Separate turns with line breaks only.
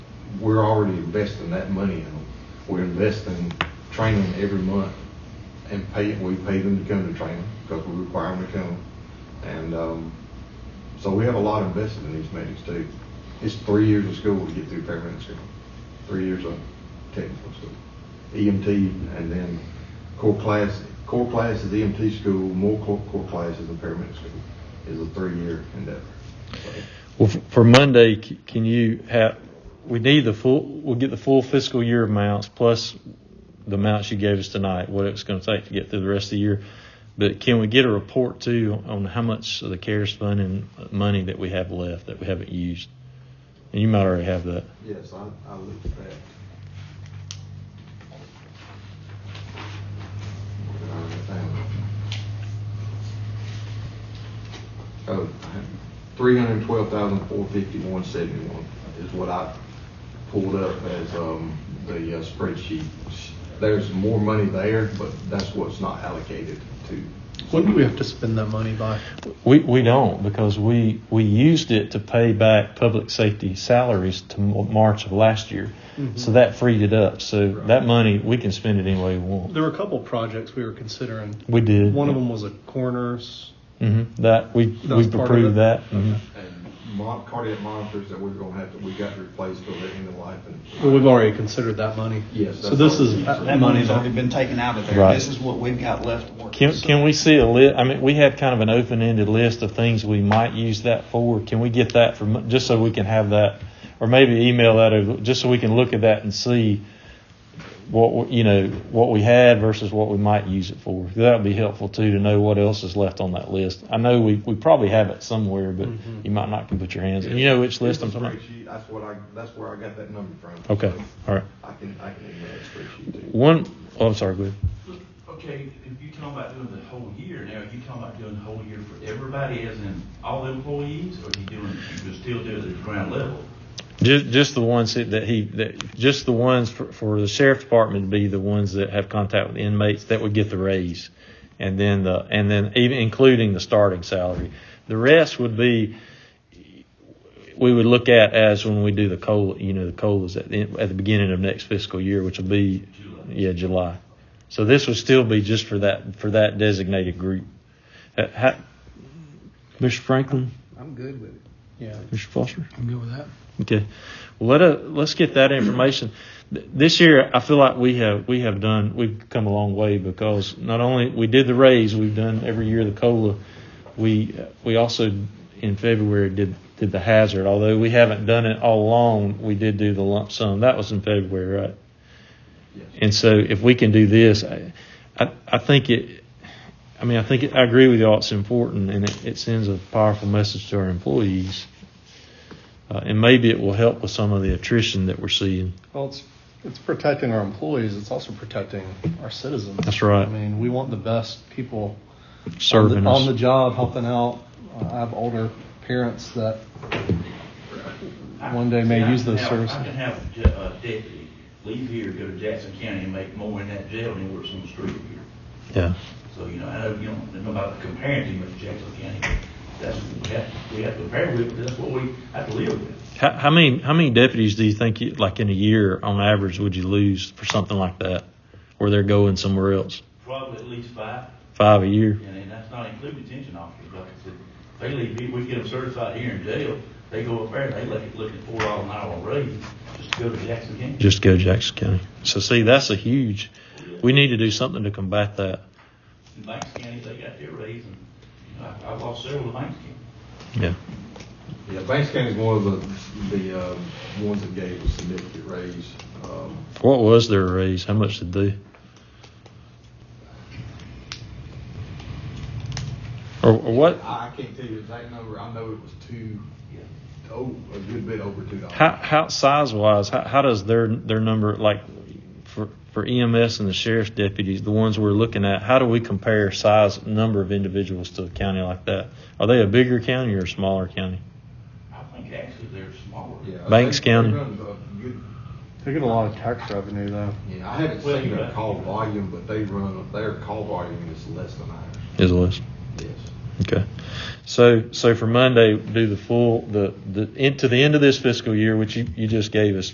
we're already investing that money in them. We're investing, training every month and pay, we pay them to come to training because we require them to come. And, um, so we have a lot invested in these meetings too. It's three years of school to get through paramedic school, three years of technical school. EMT and then core class, core class is EMT school, more core, core class is the paramedic school, is a three-year endeavor. So-
Well, f- for Monday, c- can you have, we need the full, we'll get the full fiscal year amounts plus the amounts you gave us tonight, what it's going to take to get through the rest of the year. But can we get a report too on how much of the CARES fund and money that we have left that we haven't used? And you might already have that.
Yes, I, I looked at that. Where did I write that down? Oh, three hundred twelve thousand four fifty-one seventy-one is what I pulled up as, um, the uh, spreadsheet. There's more money there, but that's what's not allocated to.
When do we have to spend that money by?
We, we don't because we, we used it to pay back public safety salaries to M- March of last year.
Mm-hmm.
So that freed it up. So that money, we can spend it any way we want.
There were a couple projects we were considering.
We did.
One of them was a coroner's.
Mhm. That we
That was
we've
part of
approved
it?
that. Mhm.
And mon- cardiac monitors that we're gonna have to, we got to replace for the end of life and.
Well, we've already considered that money.
Yes,
So
that's
this
all.
is
That
That
money
money's already
that.
been taken out of there.
Right.
This is what we've got left to work.
Can
with.
can we see a list? I mean, we have kind of an open-ended list of things we might use that for. Can we get that from just so we can have that, or maybe email that over, just so we can look at that and see what we- you know what we had versus what we might use it for. That would be helpful too to know what else is left on that list. I know we, we probably have it somewhere, but
Mhm.
you might not can put your hands. on You know which list I'm
It's a
talking about.
spreadsheet. That's what I, that's where I got that number from.
Okay, all right.
I can, I can email that spreadsheet to you.
One. Oh, I'm sorry. Go ahead.
Okay, if you talking about doing the whole year now, you talking about doing the whole year for everybody as in all employees? Or you doing, you can still do it at the ground level?
Just, just the ones that that he, that, just the ones for, for the sheriff's department to be the ones that have contact with inmates that would get the raise. And then the, and then even including the starting salary. The rest would be, we would look at as when we do the COLA, you know, the COLAs at the, at the beginning of next fiscal year, which will be,
July.
yeah, July. So this would still be just for that, for that designated group. Uh, how- Mr. Franklin,
I'm good with it.
Yeah,
Mr. Foster?
I'm good with that.
Okay. Well, let us, let's get that information. Th- This year, I feel like we have, we have done, we've come a long way because not only we did the raise, we've done every year the COLA. We, uh, we also in February did, did the hazard, although we haven't done it all along, we did do the lump sum. That was in February, right?
Yes.
And so if we can do this, I, I, I think it, I mean, I think, it- I agree with y'all, it's important and it, it sends a powerful message to our employees. Uh, and maybe it will help with some of the attrition that we're seeing.
Well, it's, it's protecting our employees. It's also protecting our citizens.
That's right.
I mean, we want the best people on
Serving
the,
us.
on the job, helping out. Uh, I have older parents that one day may
See, I
use
can
those
have-
services.
I can have a ja- a deputy leave here, go to Jackson County and make more in that jail than he works on the street here.
Yeah.
So, you know, I know you don't know about comparing him with Jackson County, but that's, what we have, we have to compare with, but that's what we have to live with.
How, how many how many deputies do you think you, like in a year on average would you lose for something like that, where they're going somewhere else?
Probably at least five.
Five a year.
And, and that's not including detention officers, like I said, they leave, here- we get them certified here in jail, they go up there, they look, look at four dollar an hour raise, just to go to Jackson County.
Just go Jackson County. So see, that's a huge. We need to do something to combat that.
In Banks County, they got their raise, and, you know, I, I've lost several in Banks County.
Yeah.
Yeah, Banks County's one of the, the, um, ones that gave a significant raise. Um,
What was their raise? How much did they? Or, or what?
I, I can't tell you the exact number, I know it was two,
Yeah.
oh, a good bit over two dollars.
How, how size wise, how, how does their their number like for for EMS and the sheriff's deputies, the ones we're looking at, how do we compare size number of individuals to a county like that? Are they a bigger county or a smaller county?
I think actually they're smaller.
Yeah,
Banks
they- they
County.
run a good-
They get a lot of tax revenue though.
Yeah, I haven't
Well,
seen
you
their
got-
call volume, but they run, their call volume is less than ours.
Is list.
Yes.
Okay. So so for Monday, do the full the the into the end of this fiscal year, which you, you just gave us